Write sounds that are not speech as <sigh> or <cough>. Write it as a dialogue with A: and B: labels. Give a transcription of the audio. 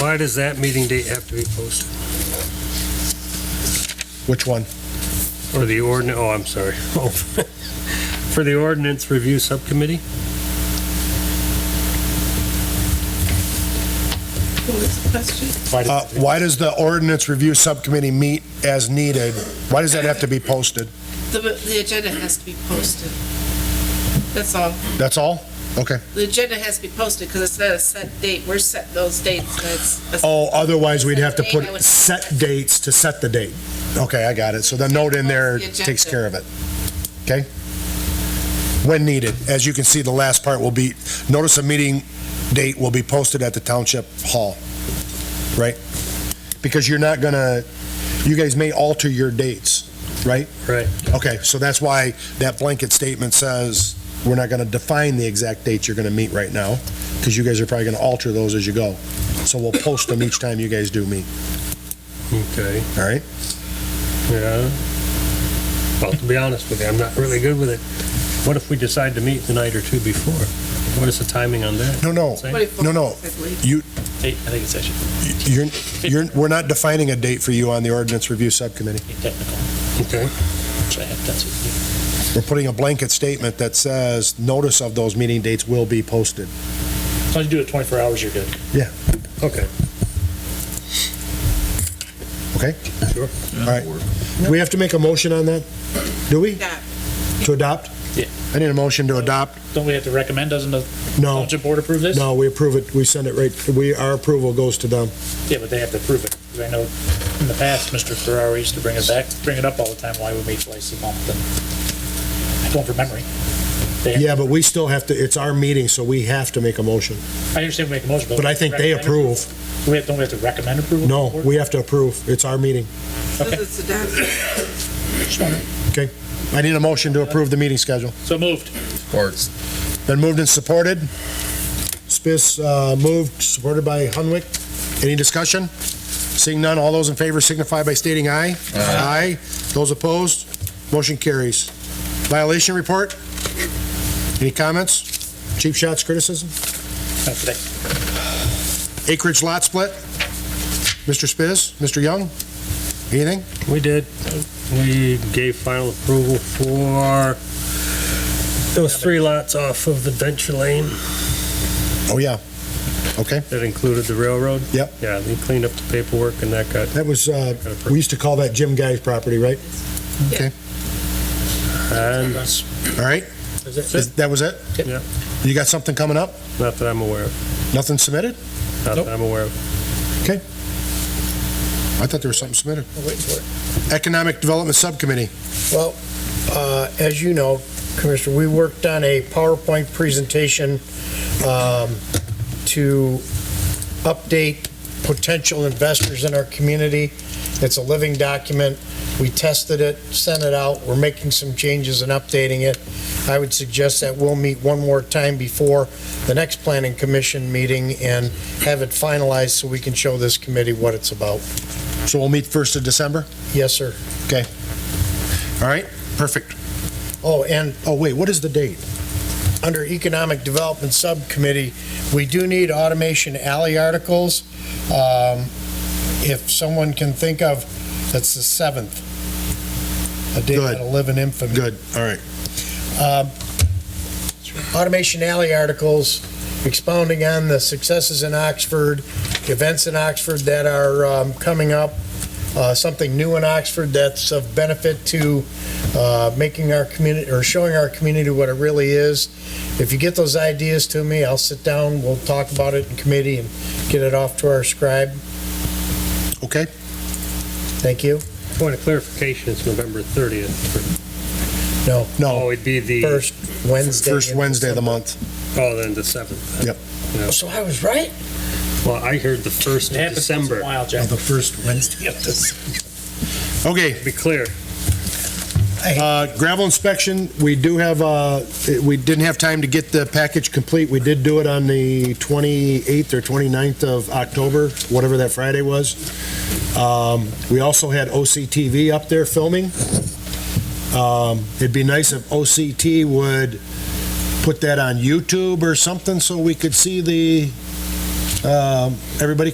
A: Why does that meeting date have to be posted?
B: Which one?
A: Or the ordinance, oh, I'm sorry. <laughs> Oh, For the ordinance review subcommittee?
C: What was the question?
A: Why
B: Uh,
A: does-
B: Why does the ordinance review subcommittee meet as needed? Why does that have to be posted?
C: The, the agenda has to be posted. That's all.
B: That's all? Okay.
C: The agenda has to be posted because it's not a set date. We're setting those dates. That's,
B: Oh, otherwise we'd have to
C: Set date, I
B: put
C: would-
B: set dates to set the date. Okay, I got it. So the note in there
C: The agenda.
B: takes care of it. Okay? When needed. As you can see, the last part will be, notice of meeting date will be posted at the township hall. Right? Because you're not gonna, you guys may alter your dates, right?
A: Right.
B: Okay, so that's why that blanket statement says, we're not gonna define the exact dates you're gonna meet right now, because you guys are probably gonna alter those as you go. So we'll post them each time you guys do meet,
A: Okay,
B: all right?
A: yeah. Well, to be honest with you, I'm not really good with it. What if we decide to meet the night or two before? What is the timing on that?
B: No, no,
A: Same?
C: what if-
B: No, no.
C: I believe.
D: Eight, I think it's actually
B: you're, you're, we're not defining a date for you on the ordinance review subcommittee.
D: technical,
A: Okay,
D: which I have, that's it.
B: We're putting a blanket statement that says, notice of those meeting dates will be posted.
D: As long as you do it 24 hours, you're good.
A: okay.
B: Okay.
A: Sure.
B: All right. Do we have to make a motion on that? Do we?
C: Yeah.
B: To adopt?
D: Yeah.
B: I need a motion to adopt.
D: Don't we have to recommend, doesn't the
B: No,
D: township board approve this?
B: no, we approve it, we send it right, we, our approval goes to them.
D: Yeah, but they have to approve it. 'Cause I know in the past, Mr. Ferrari used to bring it back, bring it up all the time, why we meet twice a month, and I don't from memory. They-
B: Yeah, but we still have to, it's our meeting, so we have to make a motion.
D: I understand we make a motion, but.
B: But I think they approve.
D: Do we have, don't we have to recommend approval?
B: No,
D: to the board?
B: we have to approve. It's our meeting.
C: This is the doc-
B: I need a motion to approve the meeting schedule.
D: So moved.
B: Been moved and supported. Spis, uh, moved, supported by Hunwick. Any discussion? Seeing none, all those in favor signify by stating aye. Aye. Those opposed, motion carries. Violation report? Any comments? Cheap shots, criticism?
D: Not today.
B: Acreage lot split? Mr. Spiz, Mr. Young? Anything?
A: We did. We gave final approval for those three lots off of Adventure Lane
B: Oh, yeah. Okay,
A: that included the railroad.
B: Yep.
A: Yeah, they cleaned up the paperwork and that got
B: that was, uh,
A: got
B: we
A: approved.
B: used to call that Jim Guy's property, right?
A: And
D: That's-
B: All right,
A: that's it.
B: Is- that was it?
A: Yeah.
B: You got something coming up?
A: Not that I'm aware of.
B: Nothing submitted?
A: Not
D: Nope.
A: that I'm aware of.
B: I thought there was something submitted.
E: I'll wait for it.
B: Economic Development Subcommittee.
E: Well, uh, as you know, Commissioner, we worked on a PowerPoint presentation um, to update potential investors in our community. It's a living document. We tested it, sent it out. We're making some changes and updating it. I would suggest that we'll meet one more time before the next planning commission meeting and have it finalized so we can show this committee what it's about.
B: So we'll meet first of December?
E: Yes, sir.
B: All right, perfect.
E: Oh, and
B: Oh, wait, what is the date?
E: under Economic Development Subcommittee, we do need automation alley articles. Um, If someone can think of, that's the 7th. A day
B: Good.
E: that'll live in infamy.
B: Good, all right.
E: Um, Automation alley articles expounding on the successes in Oxford, events in Oxford that are um, coming up, uh, something new in Oxford that's of benefit to uh, making our community, or showing our community what it really is. If you get those ideas to me, I'll sit down, we'll talk about it in committee and get it off to our scribe.
B: Okay,
E: Thank you.
A: Point of clarification, it's November 30th.
E: No,
A: Oh,
B: no,
A: it'd be the, oh,
E: first Wednesday.
B: first Wednesday of the month.
A: then the 7th.
B: Yep.
E: Oh, So I was right.
A: Well, I heard the 1st
D: It
A: of
D: happens once in a
A: December.
D: while, Jack.
B: first Wednesday
D: of
B: Okay,
A: Be clear.
B: uh, gravel inspection, we do have, uh, we didn't have time to get the package complete. We did do it on the 28th or 29th of October, whatever that Friday was. Um, We also had OCTV up there filming. Um, It'd be nice if OCT would put that on YouTube or something so we could see the, um, everybody